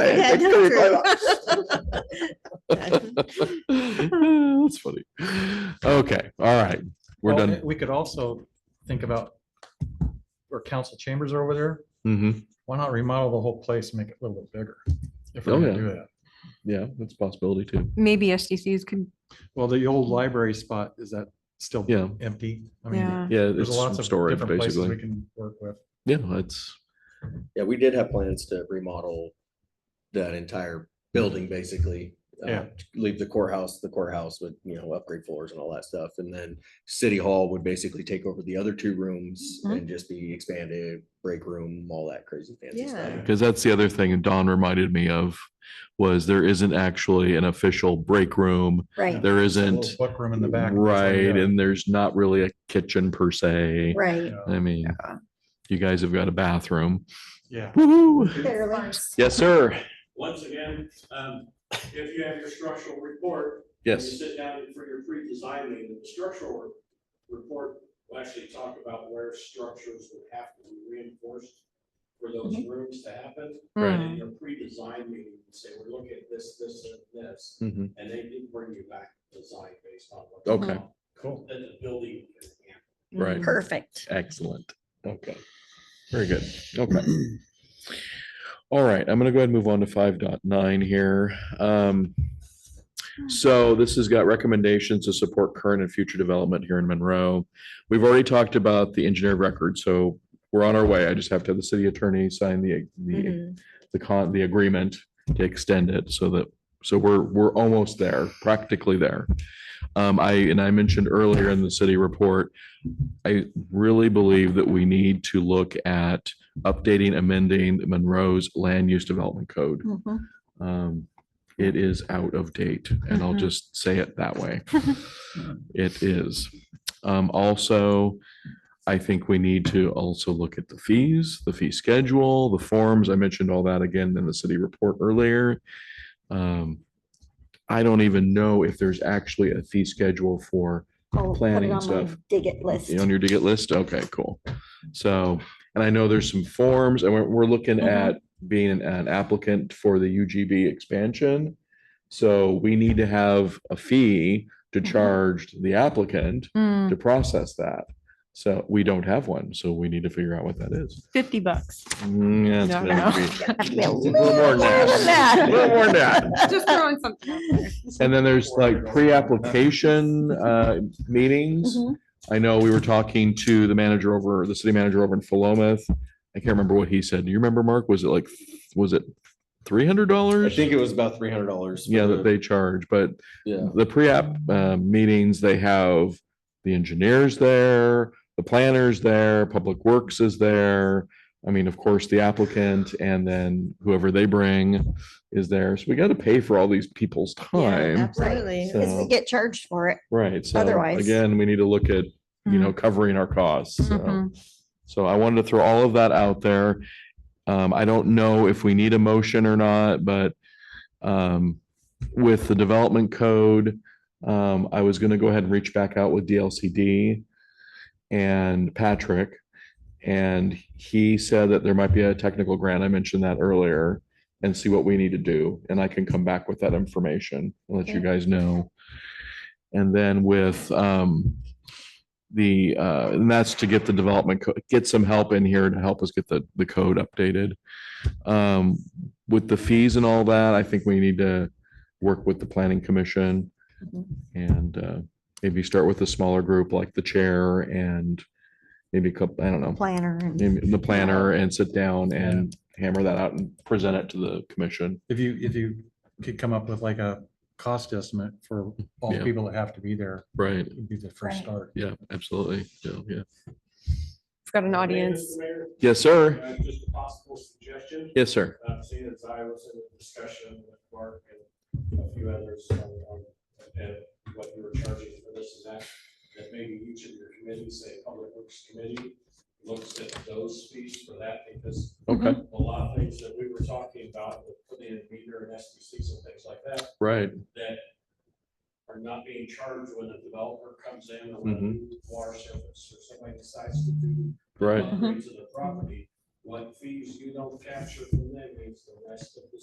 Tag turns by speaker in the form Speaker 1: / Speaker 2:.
Speaker 1: I
Speaker 2: Yeah,
Speaker 1: had
Speaker 2: no,
Speaker 1: victory by
Speaker 2: true.
Speaker 1: the- That's funny. Okay, all right, we're
Speaker 3: Well,
Speaker 1: done.
Speaker 3: We could also think about where council chambers are over there.
Speaker 1: Mhm.
Speaker 3: Why not remodel the whole place, and make it a little bit bigger? If we're
Speaker 1: Oh,
Speaker 3: gonna
Speaker 1: yeah.
Speaker 3: do that.
Speaker 1: Yeah, that's a possibility too.
Speaker 4: Maybe SDCs could,
Speaker 3: Well, the old library spot, is that still
Speaker 1: Yeah,
Speaker 3: empty? I mean,
Speaker 4: yeah.
Speaker 1: yeah,
Speaker 3: there's
Speaker 1: it's
Speaker 3: lots
Speaker 1: some
Speaker 3: of
Speaker 1: storage
Speaker 3: different places we
Speaker 1: basically.
Speaker 3: can work with.
Speaker 1: Yeah, it's,
Speaker 5: Yeah, we did have plans to remodel that entire building, basically. uh,
Speaker 3: Yeah.
Speaker 5: Leave the courthouse, the courthouse would, you know, upgrade floors and all that stuff. And then City Hall would basically take over the other two rooms
Speaker 2: Mhm.
Speaker 5: and just be expanded, break room, all that crazy fancy
Speaker 2: Yeah.
Speaker 5: stuff.
Speaker 1: because that's the other thing Don reminded me of was there isn't actually an official break room.
Speaker 2: Right,
Speaker 1: There
Speaker 3: A little
Speaker 1: isn't,
Speaker 3: Book room in the back. that's like
Speaker 1: right,
Speaker 3: that.
Speaker 1: and there's not really a kitchen per se.
Speaker 2: right.
Speaker 1: I mean, you guys have got a bathroom.
Speaker 3: Yeah.
Speaker 1: Woo-hoo.
Speaker 2: Barely.
Speaker 1: Yes, sir.
Speaker 6: Once again, um, if you have your structural report. when You
Speaker 1: Yes.
Speaker 6: sit down for your pre-design meeting, the structural re- report will actually talk about where structures would have to be reinforced for those rooms to happen.
Speaker 1: Right.
Speaker 4: Hmm.
Speaker 6: And in your pre-design meeting, you say, we're looking at this, this, and this,
Speaker 1: Mhm.
Speaker 6: and they do bring you back design based on what.
Speaker 1: Okay,
Speaker 3: Cool.
Speaker 6: That the building can handle.
Speaker 1: right.
Speaker 2: Perfect.
Speaker 1: Excellent. Okay. Very good. Okay. All right, I'm gonna go ahead and move on to five dot nine here. Um, so this has got recommendations to support current and future development here in Monroe. We've already talked about the engineer of record, so we're on our way. I just have to have the city attorney sign the, the,
Speaker 2: Mhm.
Speaker 1: the con, the agreement to extend it so that, so we're, we're almost there, practically there. Um, I, and I mentioned earlier in the city report, I really believe that we need to look at updating, amending Monroe's land use development code.
Speaker 2: Mhm.
Speaker 1: Um, it is out of date and I'll
Speaker 4: Mhm.
Speaker 1: just say it that way. It is. Um, also, I think we need to also look at the fees, the fee schedule, the forms. I mentioned all that again in the city report earlier. Um, I don't even know if there's actually a fee schedule for
Speaker 2: I'll put it
Speaker 1: Planning
Speaker 2: on my
Speaker 1: stuff.
Speaker 2: Dig it list.
Speaker 1: on your ticket list? Okay, cool. So, and I know there's some forms and we're, we're looking
Speaker 4: Mm-hmm.
Speaker 2: Mhm.
Speaker 1: at being an- an applicant for the UGB expansion. So we need to have a fee to
Speaker 2: Mhm.
Speaker 1: charge the applicant
Speaker 4: Mm-hmm. Mm,
Speaker 1: to process that. So we don't have one, so we need to figure out what that is.
Speaker 4: Fifty bucks.
Speaker 1: Mm, yeah, it's
Speaker 4: No,
Speaker 1: gonna
Speaker 4: no.
Speaker 1: be-
Speaker 2: Has to be a
Speaker 1: Little
Speaker 2: little
Speaker 1: more than
Speaker 2: more than
Speaker 1: that.
Speaker 2: that.
Speaker 1: Little more than that.
Speaker 4: Just throwing something out there.
Speaker 1: And then there's like pre-application uh,
Speaker 4: Mm-hmm.
Speaker 1: meetings.
Speaker 2: Mhm.
Speaker 1: I know we were talking to the manager over, the city manager over in Philomath. I can't remember what he said. Do you remember, Mark? Was it like, was it three hundred
Speaker 5: I
Speaker 1: dollars?
Speaker 5: think it was about three hundred dollars.
Speaker 1: Yeah, that they charge, but
Speaker 5: Yeah.
Speaker 1: the pre-app uh, meetings, they have the engineers there, the planners there, Public Works is there. I mean, of course, the applicant and then whoever they bring is there. So we got to pay for all these people's time.
Speaker 2: Absolutely.
Speaker 1: So-
Speaker 2: Because we get charged for it.
Speaker 1: Right. So
Speaker 2: Otherwise-
Speaker 1: again, we need to look at, you
Speaker 4: Hmm.
Speaker 1: know, covering our costs. so.
Speaker 4: Mhm.
Speaker 1: So I wanted to throw all of that out there. Um, I don't know if we need a motion or not, but um, with the development code, um, I was gonna go ahead and reach back out with DLCD and Patrick. And he said that there might be a technical grant. I mentioned that earlier and see what we need to do. And I can come back with that information, and let you
Speaker 2: Okay.
Speaker 1: guys know. And then with um, the, uh, and that's to get the development, co- get some help in here to help us get the, the code updated. Um, with the fees and all that, I think we need to work with the planning commission
Speaker 2: Mhm.
Speaker 1: and uh, maybe start with a smaller group like the chair and maybe a couple, I don't know,
Speaker 2: Planner and
Speaker 1: maybe the planner and sit down and hammer that out and present it to the commission.
Speaker 3: If you, if you could come up with like a cost estimate for all
Speaker 1: Yeah.
Speaker 3: the people that have to be there,
Speaker 1: Right.
Speaker 3: would be the first
Speaker 2: Right.
Speaker 3: start.
Speaker 1: Yeah, absolutely. Yeah, yeah.
Speaker 4: It's got an
Speaker 6: Hey, Mr.
Speaker 4: audience.
Speaker 6: Mayor,
Speaker 1: Yes, sir.
Speaker 6: uh, Just a possible suggestion.
Speaker 1: Yes, sir.
Speaker 6: Uh, seeing as I was in a discussion with Mark and a few others on, on, and what you were charging for this and that, that maybe each of your committees, say Public Works Committee, looks at those fees for that, because
Speaker 1: Okay,
Speaker 6: a lot of things that we were talking about, with putting in meter and SBCs and things like that,
Speaker 1: right.
Speaker 6: that are not being charged when a developer comes in or when a new water service or somebody decides to do.
Speaker 1: Right.
Speaker 6: upgrades of the property, what fees you don't capture from them means the rest of the